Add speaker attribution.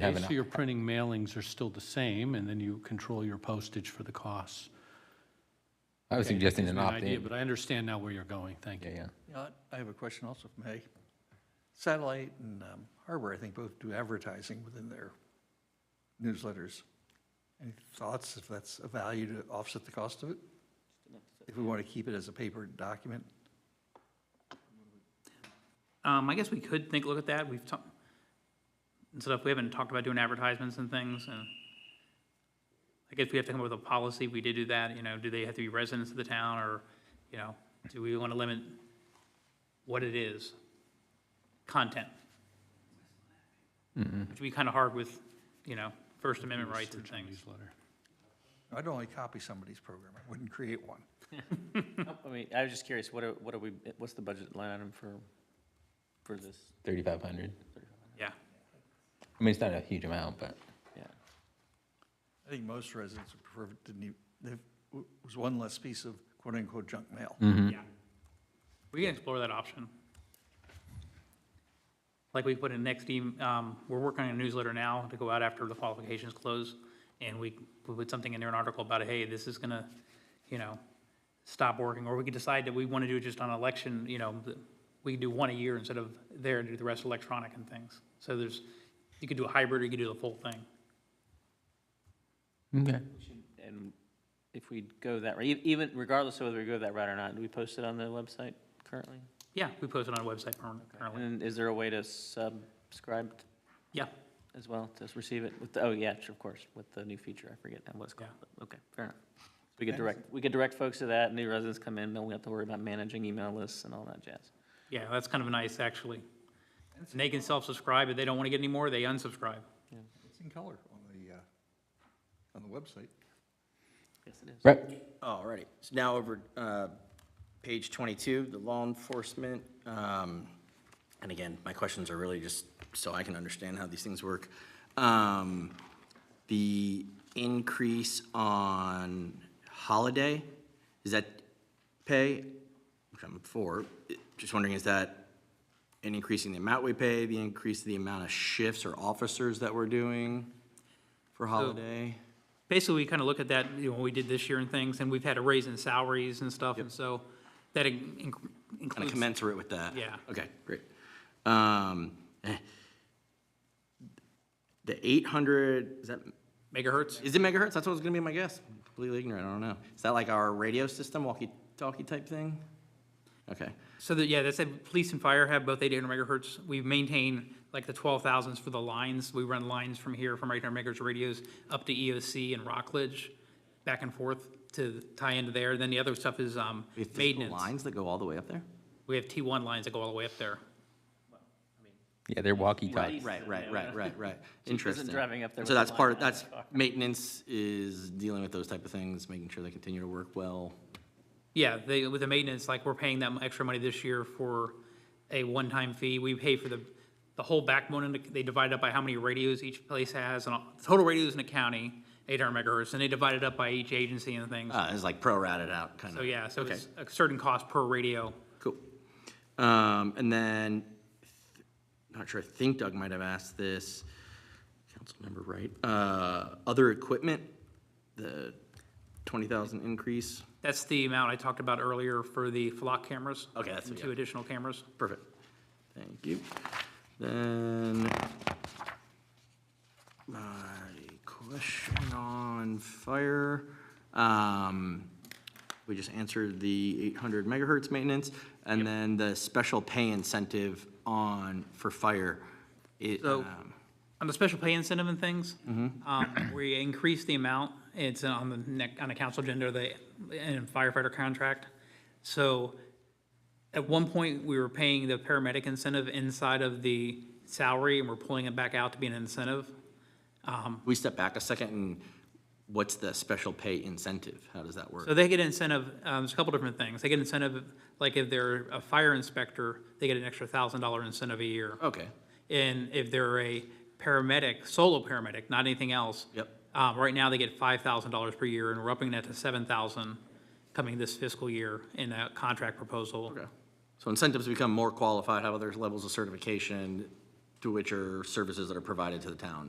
Speaker 1: have
Speaker 2: Okay,
Speaker 1: an-
Speaker 2: So your printing mailings are still the same, and then you control your postage for the costs.
Speaker 1: I was
Speaker 2: Okay, that
Speaker 1: suggesting
Speaker 2: gives me
Speaker 1: an
Speaker 2: idea,
Speaker 1: opt-in.
Speaker 2: But I understand now where you're going, thank
Speaker 1: Yeah,
Speaker 2: you.
Speaker 1: yeah.
Speaker 3: Yeah, I have a question also, if I may. Satellite and um, Harbor, I think, both do advertising within their newsletters. Any thoughts if that's a value to offset the cost of it? If we want to keep it as a paper document?
Speaker 4: Um, I guess we could think, look at that, we've talked, and stuff, we haven't talked about doing advertisements and things, and I guess we have to come up with a policy, we did do that, you know, do they have to be residents of the town, or, you know, do we want to limit what it is? Content. Which would be kind of hard with, you know, First Amendment rights and things.
Speaker 2: Newsletter.
Speaker 3: I'd only copy somebody's program, I wouldn't create one.
Speaker 5: I mean, I was just curious, what are, what are we, what's the budget line item for, for this?
Speaker 1: 3,500.
Speaker 4: Yeah,
Speaker 1: I mean, it's not a huge amount, but
Speaker 5: Yeah,
Speaker 3: I think most residents would prefer, it didn't even, there was one less piece of quote-unquote junk mail.
Speaker 4: yeah. We can explore that option. like we put in next, em- um, we're working on a newsletter now to go out after the qualifications close. And we, we put something in there, an article about, hey, this is gonna, you know, stop working, or we could decide that we wanna do it just on election, you know, th- we could do one a year instead of there and do the rest electronic and things. So there's, you could do a hybrid, or you could do the full thing.
Speaker 1: okay.
Speaker 5: and if we go that, e- even regardless of whether we go that route or not, do we post it on the website currently?
Speaker 4: Yeah, we post it on a website perm- currently.
Speaker 5: And is there a way to subscribe
Speaker 4: Yeah,
Speaker 5: as well, to receive it with, the oh, yeah, sure, of course, with the new feature, I forget what it's called,
Speaker 4: Yeah.
Speaker 5: but, okay, fair enough. We could direct, we could direct folks to that, new residents come in, don't we have to worry about managing email lists and all that jazz?
Speaker 4: yeah, that's kind of nice, actually. And they can self-subscribe, if they don't wanna get any more, they unsubscribe.
Speaker 3: It's in color on the, uh, on the website.
Speaker 5: Yes, it is.
Speaker 1: Right.
Speaker 6: All righty. So now over, uh, page 22, the law enforcement. um, And again, my questions are really just so I can understand how these things work. Um, The increase on holiday, is that pay? Which I'm for. Just wondering, is that an increase in the amount we pay, the increase in the amount of shifts or officers that we're doing for holiday?
Speaker 4: basically, we kind of look at that, you know, when we did this year and things, and we've had a raise in salaries and stuff, and so that in- in-
Speaker 6: kind of
Speaker 4: includes.
Speaker 6: commensurate with that?
Speaker 4: Yeah.
Speaker 6: Okay, great. Um, eh, The 800, is that,
Speaker 4: Megahertz?
Speaker 6: is it megahertz? That's what was gonna be my guess. Completely ignorant, I don't know. Is that like our radio system, walkie-talkie type thing? Okay,
Speaker 4: So that, yeah, that said, police and fire have both 800 megahertz. We maintain like the 12,000s for the lines. We run lines from here, from 800 megahertz radios up to EOC and Rockledge, back and forth to tie into there. Then the other stuff is um,
Speaker 6: we have physical
Speaker 4: maintenance.
Speaker 6: lines that go all the way up there?
Speaker 4: We have T1 lines that go all the way up there.
Speaker 1: Yeah, they're walkie-talkie.
Speaker 6: Right, right, right, right, right.
Speaker 5: isn't
Speaker 6: Interesting.
Speaker 5: driving up there
Speaker 6: So
Speaker 5: with a
Speaker 6: that's part,
Speaker 5: line
Speaker 6: of that's, maintenance is dealing with those type of things, making sure they continue to work well.
Speaker 4: Yeah, they, with the maintenance, like, we're paying them extra money this year for a one-time fee. We pay for the, the whole backbone, and they divide it up by how many radios each place has, and all- total radios in a county, eight hundred megahertz, and they divide it up by each agency and things.
Speaker 6: Uh, It's like pro-rated out, kind of.
Speaker 4: So, yeah, so
Speaker 6: okay.
Speaker 4: it's a certain cost per radio.
Speaker 6: Cool. Um, and then, th- not sure, I think Doug might have asked this, council member, right? Uh, other equipment, the twenty thousand increase,
Speaker 4: That's the amount I talked about earlier for the flock cameras.
Speaker 6: Okay, that's-
Speaker 4: and
Speaker 6: yeah.
Speaker 4: Two additional cameras.
Speaker 6: perfect, thank you. Then, my question on fire, um, we just answered the eight hundred megahertz maintenance, and then the special pay incentive on, for fire. It,
Speaker 4: So-
Speaker 6: um,
Speaker 4: On the special pay incentive and things, um, we increased the amount, it's on the neck, on the council agenda, the and firefighter contract. So at one point, we were paying the paramedic incentive inside of the salary, and we're pulling it back out to be an incentive.
Speaker 6: we step back a second and what's the special pay incentive? How does that work?
Speaker 4: So they get incentive, um, there's a couple different things. They get incentive, like if they're a fire inspector, they get an extra thousand dollar incentive a year.
Speaker 6: Okay,
Speaker 4: And if they're a paramedic, solo paramedic, not anything else.
Speaker 6: Yep.
Speaker 4: Um, right now, they get five thousand dollars per year, and we're upping that to seven thousand coming this fiscal year in a contract proposal.
Speaker 6: okay. So incentives become more qualified, have other levels of certification to which are services that are provided to the town.